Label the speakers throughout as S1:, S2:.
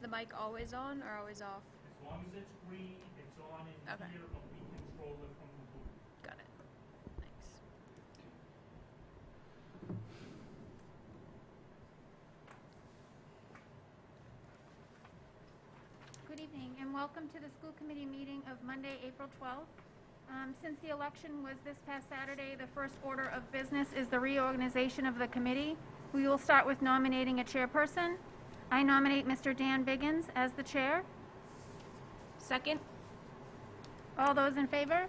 S1: the mic always on or always off?
S2: As long as it's green, it's on in
S1: Okay.
S2: here, but we control it from the booth.
S1: Got it. Thanks.
S3: Good evening, and welcome to the school committee meeting of Monday, April 12th. Um, Since the election was this past Saturday, the first order of business is the reorganization of the committee. We will start with nominating a chairperson. I nominate Mr. Dan Biggins as the chair.
S1: Second?
S3: All those in favor?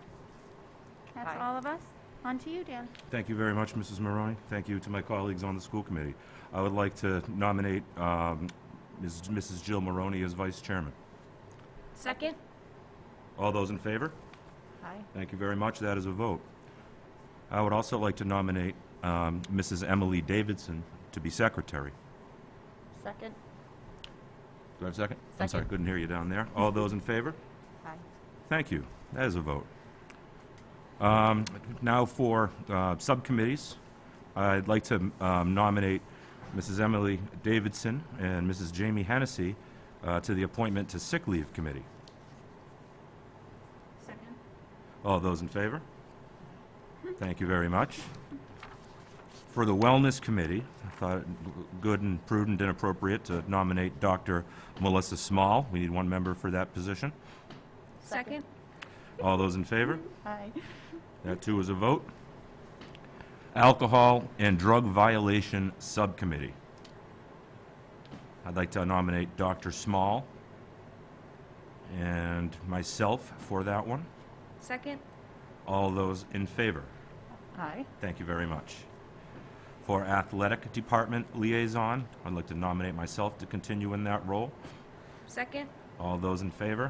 S3: That's
S1: Aye.
S3: all of us. On to you, Dan.
S4: Thank you very much, Mrs. Maroney. Thank you to my colleagues on the school committee. I would like to nominate um, Ms. Mrs. Jill Maroney as vice chairman.
S1: Second?
S4: All those in favor?
S1: Aye.
S4: Thank you very much. That is a vote. I would also like to nominate um, Mrs. Emily Davidson to be secretary.
S1: Second?
S4: Do I have a second? I'm sorry,
S1: Second.
S4: couldn't hear you down there. All those in favor?
S1: Aye.
S4: Thank you. That is a vote. Um, Now for uh, subcommittees, I'd like to um, nominate Mrs. Emily Davidson and Mrs. Jamie Hennessy uh, to the Appointment to Sick Leave Committee.
S3: Second.
S4: All those in favor? Thank you very much. For the Wellness Committee, I thought it good and prudent and appropriate to nominate Dr. Melissa Small. We need one member for that position.
S1: Second?
S4: All those in favor?
S1: Aye.
S4: That too is a vote. Alcohol and Drug Violation Subcommittee. I'd like to nominate Dr. Small and myself for that one.
S1: Second?
S4: All those in favor?
S1: Aye.
S4: Thank you very much. For Athletic Department Liaison, I'd like to nominate myself to continue in that role.
S1: Second?
S4: All those in favor?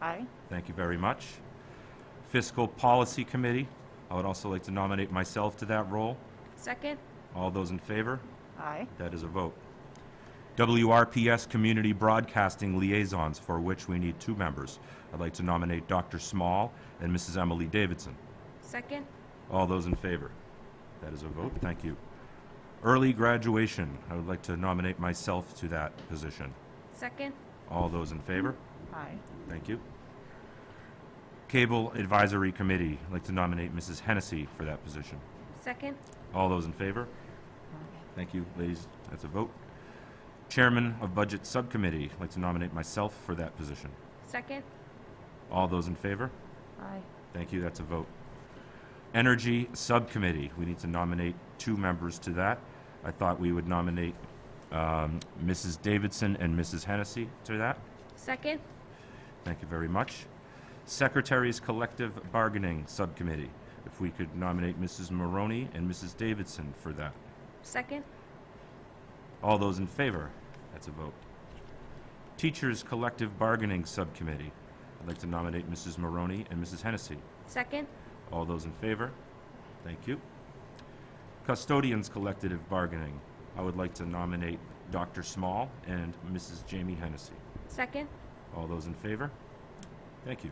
S1: Aye.
S4: Thank you very much. Fiscal Policy Committee, I would also like to nominate myself to that role.
S1: Second?
S4: All those in favor?
S1: Aye.
S4: That is a vote. WRPS Community Broadcasting Liaisons, for which we need two members. I'd like to nominate Dr. Small and Mrs. Emily Davidson.
S1: Second?
S4: All those in favor? That is a vote. Thank you. Early graduation, I would like to nominate myself to that position.
S1: Second?
S4: All those in favor?
S1: Aye.
S4: Thank you. Cable Advisory Committee, I'd like to nominate Mrs. Hennessy for that position.
S1: Second?
S4: All those in favor? Thank you, ladies. That's a vote. Chairman of Budget Subcommittee, I'd like to nominate myself for that position.
S1: Second?
S4: All those in favor?
S1: Aye.
S4: Thank you, that's a vote. Energy Subcommittee, we need to nominate two members to that. I thought we would nominate um, Mrs. Davidson and Mrs. Hennessy to that.
S1: Second?
S4: Thank you very much. Secretaries Collective Bargaining Subcommittee, if we could nominate Mrs. Maroney and Mrs. Davidson for that.
S1: Second?
S4: All those in favor? That's a vote. Teachers Collective Bargaining Subcommittee. I'd like to nominate Mrs. Maroney and Mrs. Hennessy.
S1: Second?
S4: All those in favor? Thank you. Custodians Collective Bargaining. I would like to nominate Dr. Small and Mrs. Jamie Hennessy.
S1: Second?
S4: All those in favor? Thank you.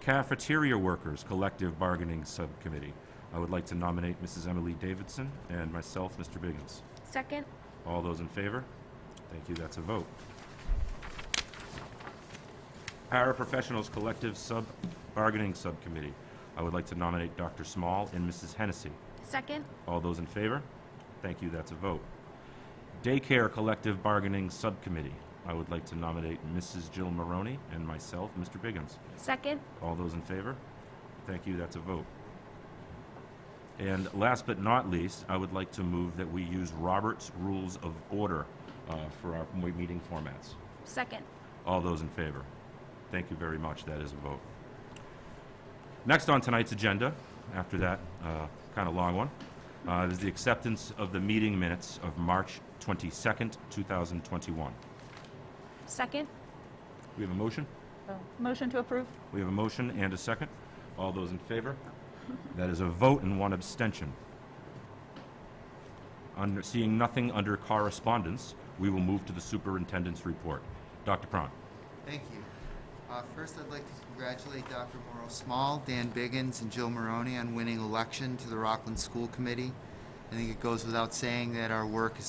S4: Cafeteria Workers Collective Bargaining Subcommittee. I would like to nominate Mrs. Emily Davidson and myself, Mr. Biggins.
S1: Second?
S4: All those in favor? Thank you, that's a vote. Paraprofessionals Collective Sub Bargaining Subcommittee. I would like to nominate Dr. Small and Mrs. Hennessy.
S1: Second?
S4: All those in favor? Thank you, that's a vote. Daycare Collective Bargaining Subcommittee. I would like to nominate Mrs. Jill Maroney and myself, Mr. Biggins.
S1: Second?
S4: All those in favor? Thank you, that's a vote. And last but not least, I would like to move that we use Robert's Rules of Order uh, for our m- meeting formats.
S1: Second?
S4: All those in favor? Thank you very much, that is a vote. Next on tonight's agenda, after that kind of long one, uh, is the acceptance of the meeting minutes of March 22nd, 2021.
S1: Second?
S4: We have a motion?
S5: Motion to approve?
S4: We have a motion and a second. All those in favor? That is a vote and one abstention. Under, seeing nothing under correspondence, we will move to the superintendent's report. Dr. Cron.
S6: Thank you. Uh, First, I'd like to congratulate Dr. Morrow Small, Dan Biggins, and Jill Maroney on winning election to the Rockland School Committee. I think it goes without saying that our work is